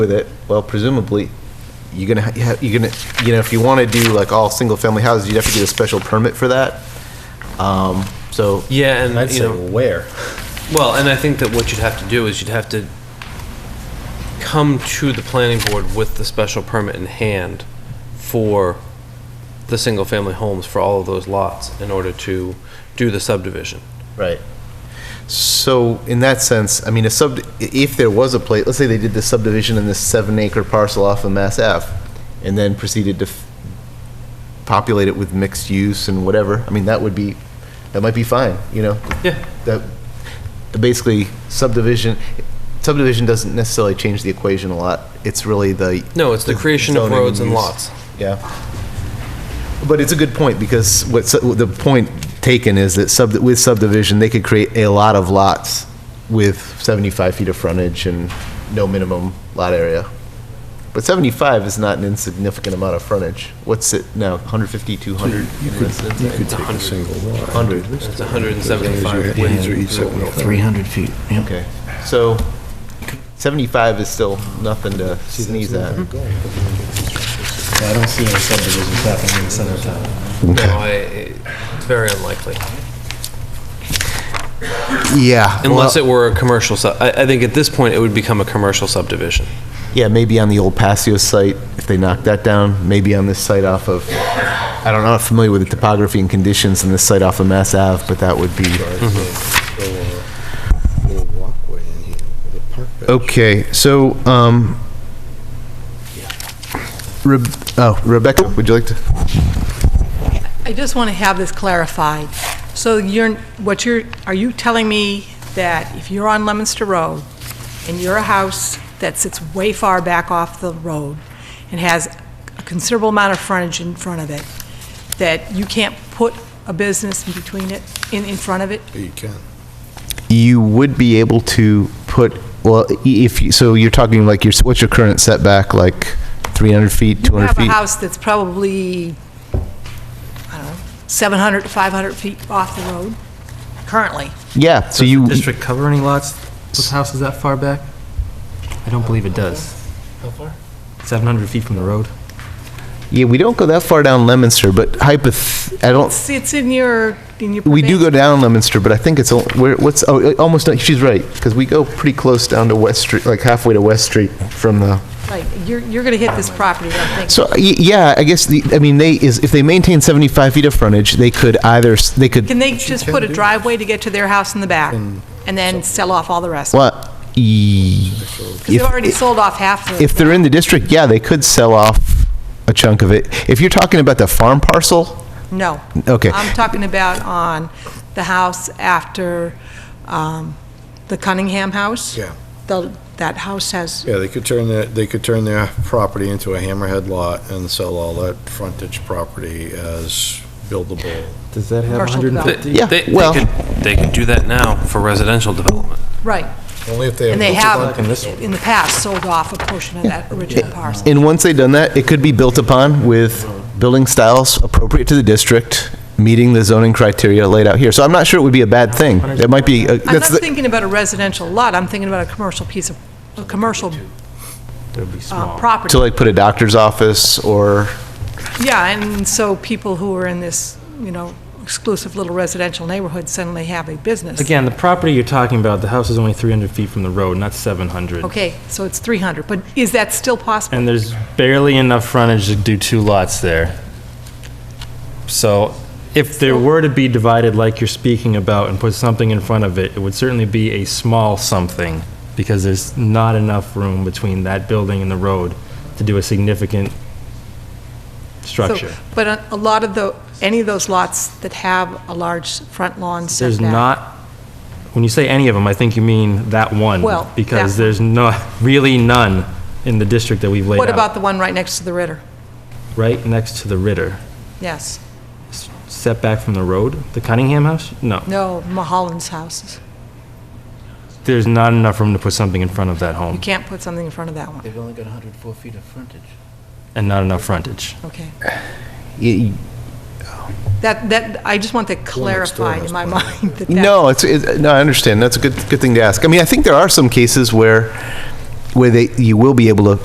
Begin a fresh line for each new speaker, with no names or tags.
with it, well, presumably, you're gonna, ha- you ha- you're gonna, you know, if you want to do like all single-family houses, you'd have to get a special permit for that. Um, So,
Yeah, and
I'd
you
say
know,
where.
well, and I think that what you'd have to do is you'd have to come to the planning board with the special permit in hand for the single-family homes for all of those lots in order to do the subdivision.
right. So in that sense, I mean, a sub, if there was a place, let's say they did the subdivision in this seven-acre parcel off of Mass F, and then proceeded to f- populate it with mixed use and whatever, I mean, that would be, that might be fine, you know?
Yeah.
that basically subdivision, subdivision doesn't necessarily change the equation a lot. It's really the.
No, it's the creation of
zoning
roads and
use.
lots.
Yeah. But it's a good point because what's, the point taken is that sub, with subdivision, they could create a lot of lots with 75 feet of frontage and no minimum lot area. But 75 is not an insignificant amount of frontage. What's it now, 150, 200?
You could take a single lot.
100.
It's 175
Yeah,
feet.
these are each separate.
300 feet, yep.
Okay, so 75 is still nothing to sneeze at.
Mm-hmm. I don't see any subdivisions happening in the center of town.
No, I, it's very unlikely.
Yeah.
Unless
well,
it were a commercial sub, I, I think at this point, it would become a commercial subdivision.
Yeah, maybe on the old Pasio site, if they knock that down, maybe on this site off of, I don't know, I'm not familiar with the topography and conditions in this site off of Mass Ave, but that would be.
little walkway in here with a park bench.
Okay, so, um, Reb- oh, Rebecca, would you like to?
I just want to have this clarified. So you're, what you're, are you telling me that if you're on Lemonster Road and you're a house that sits way far back off the road and has a considerable amount of frontage in front of it, that you can't put a business in between it, in, in front of it?
You can.
you would be able to put, well, i- if, you so you're talking like, your what's your current setback, like 300 feet,
You
200
have
feet?
a house that's probably, I don't know, 700 to 500 feet off the road currently.
Yeah, so
Does
you,
the district cover any lots with houses that far back? I don't believe it does. How far? 700 feet from the road.
yeah, we don't go that far down Lemonster, but hypoth, I don't,
It's, it's in your, in your.
we do go down Lemonster, but I think it's, al- where, what's, oh, almost, not- she's right, because we go pretty close down to West Street, like halfway to West Street from the,
Right, you're, you're going to hit this property, I think.
so, y- yeah, I guess, the I mean, they, is, if they maintain 75 feet of frontage, they could either, s- they could
Can they just put a driveway to get to their house in the back and then sell off all the rest?
Well, y-
Because they've
E, if-
already sold off half of
If
it.
they're in the district, yeah, they could sell off a chunk of it. If you're talking about the farm parcel,
No.
Okay.
I'm talking about on the house after um, the Cunningham house.
Yeah.
The- That house has,
Yeah, they could turn their, they could turn their property into a hammerhead lot and sell all that frontage property as buildable.
Does that have 150?
Commercial development.
Yeah,
They- they
well-
could- They could do that now for residential development.
right,
Only if they have.
and they have,
in this one.
in the past, sold off a portion of that original parcel.
and once they've done that, it could be built upon with building styles appropriate to the district, meeting the zoning criteria laid out here. So I'm not sure it would be a bad thing. It might be, a-
I'm
that's,
not
the-
thinking about a residential lot, I'm thinking about a commercial piece of, a commercial uh, property.
to like put a doctor's office or,
Yeah, and so people who are in this, you know, exclusive little residential neighborhood suddenly have a business.
Again, the property you're talking about, the house is only 300 feet from the road, not 700.
Okay, so it's 300, but is that still possible?
And there's barely enough frontage to do two lots there. So if there were to be divided like you're speaking about and put something in front of it, it would certainly be a small something because there's not enough room between that building and the road to do a significant
So-
structure.
But a- a lot of the, any of those lots that have a large front lawn setback.
There's not, when you say any of them, I think you mean that one.
Well,
Because
that-
there's not, really none in the district that we've laid
What about
out.
the one right next to the Ritter?
Right next to the Ritter.
Yes.
Setback from the road, the Cunningham House? No.
No, Mulholland's houses.
There's not enough room to put something in front of that
You
home
can't put something in front of that one.
They've only got 104 feet of frontage.
and not enough frontage.
Okay.
y-
That, that, I just want that
next door
clarified in
has
my mind. that that-
no, it's, it- no, I understand. That's a good, good thing to ask. I mean, I think there are some cases where where they, you will be able to